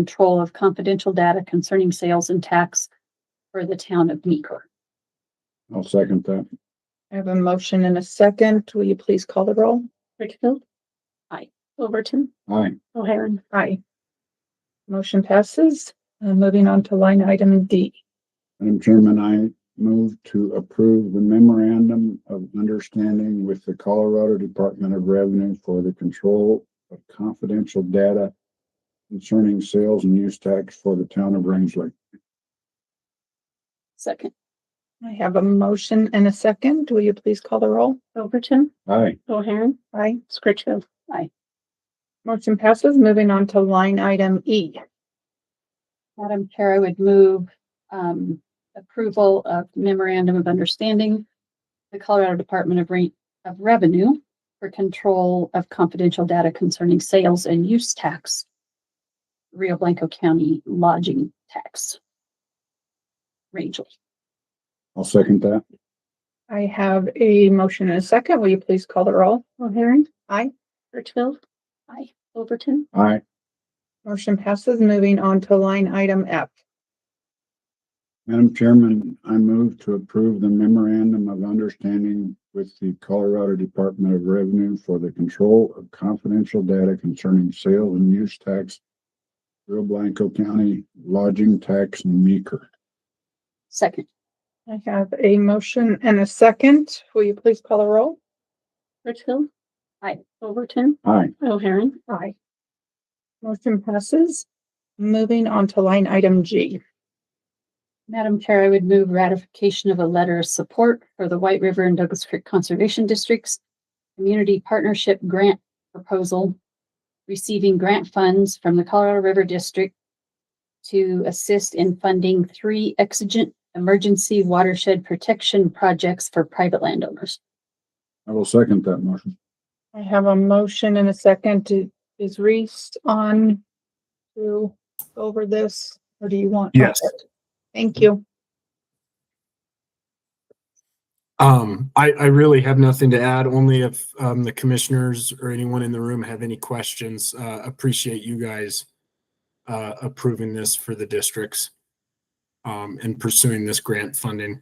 control of confidential data concerning sales and tax for the town of Meeker. I'll second that. I have a motion and a second. Will you please call the roll? Litchfield? Aye. Overton? Aye. O'Hairan? Aye. Motion passes. Uh, moving on to line item D. Madam Chairman, I move to approve the memorandum of understanding with the Colorado Department of Revenue for the control of confidential data concerning sales and use tax for the town of Rangeley. Second. I have a motion and a second. Will you please call the roll? Overton? Aye. O'Hairan? Aye. Scritchfield? Motion passes. Moving on to line item E. Madam Chair, I would move um approval of memorandum of understanding. The Colorado Department of Re- of Revenue for control of confidential data concerning sales and use tax. Rio Blanco County lodging tax. Rachel, I'll second that. I have a motion and a second. Will you please call the roll? O'Hairan? Aye. Scritchfield? Aye. Overton? Aye. Motion passes. Moving on to line item F. Madam Chairman, I move to approve the memorandum of understanding with the Colorado Department of Revenue for the control of confidential data concerning sale and use tax, Rio Blanco County lodging tax and meeker. Second. I have a motion and a second. Will you please call the roll? Scritchfield? Aye. Overton? Aye. O'Hairan? Aye. Motion passes. Moving on to line item G. Madam Chair, I would move ratification of a letter of support for the White River and Douglas Creek Conservation Districts Community Partnership Grant Proposal, receiving grant funds from the Colorado River District to assist in funding three exigent emergency watershed protection projects for private landowners. I will second that motion. I have a motion and a second. Do- Is Reese on to go over this or do you want? Yes. Thank you. Um, I, I really have nothing to add, only if, um, the commissioners or anyone in the room have any questions, uh, appreciate you guys uh, approving this for the districts, um, and pursuing this grant funding.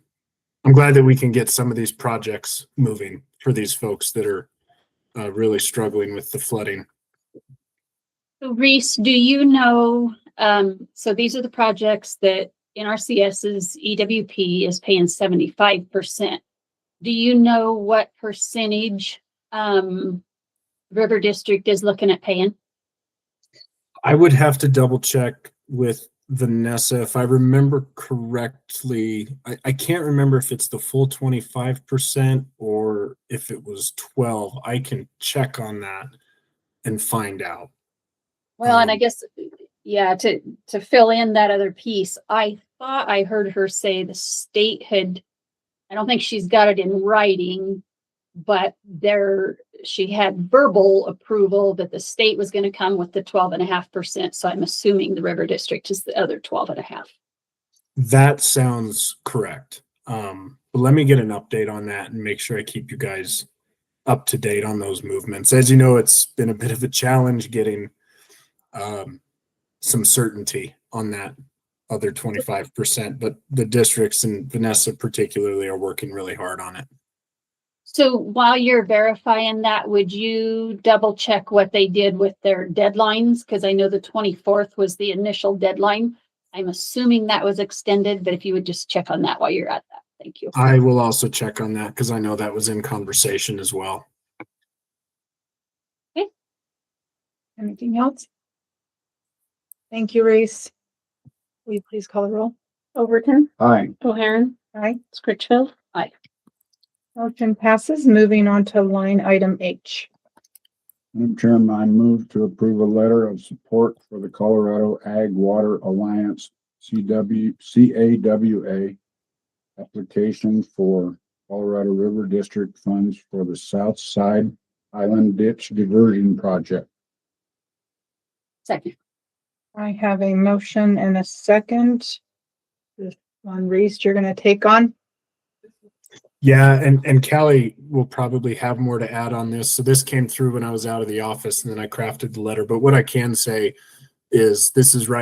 I'm glad that we can get some of these projects moving for these folks that are, uh, really struggling with the flooding. Reese, do you know, um, so these are the projects that NRCS's EWP E is paying seventy-five percent. Do you know what percentage, um, River District is looking at paying? I would have to double check with Vanessa. If I remember correctly, I, I can't remember if it's the full 25% or if it was 12. I can check on that and find out. Well, and I Um, guess, yeah, to, to fill in that other piece, I thought I heard her say the state had, I don't think she's got it in writing, but there, she had verbal approval that the state was gonna come with the twelve and a half percent, so I'm assuming the river district is the other twelve and a half. That sounds correct. Um, but let me get an update on that and make sure I keep you guys up to date on those movements. As you know, it's been a bit of a challenge getting um, some certainty on that other 25%, but the districts and Vanessa particularly are working really hard on it. So while you're verifying that, would you double check what they did with their deadlines? Because I know the twenty-fourth was the initial deadline. I'm assuming that was extended, but if you would just check on that while you're at that, thank you. I will also check on that because I know that was in conversation as well. Anything else? Thank you, Reese. Will you please call the roll? Overton, Aye. O'Hairan, Aye. Scritchfield. Aye. Motion passes. Moving on to line item H. Madam Chairman, I move to approve a letter of support for the Colorado Ag Water Alliance, CW, CAWA, application for Colorado River District funds for the South Side Island Ditch Diversion Project. Second. I have a motion and a second. This one, Reese, you're gonna take on. Yeah, and and Callie will probably have more to add on this. So this came through when I was out of the office and then I crafted the letter. But what I can say is this is right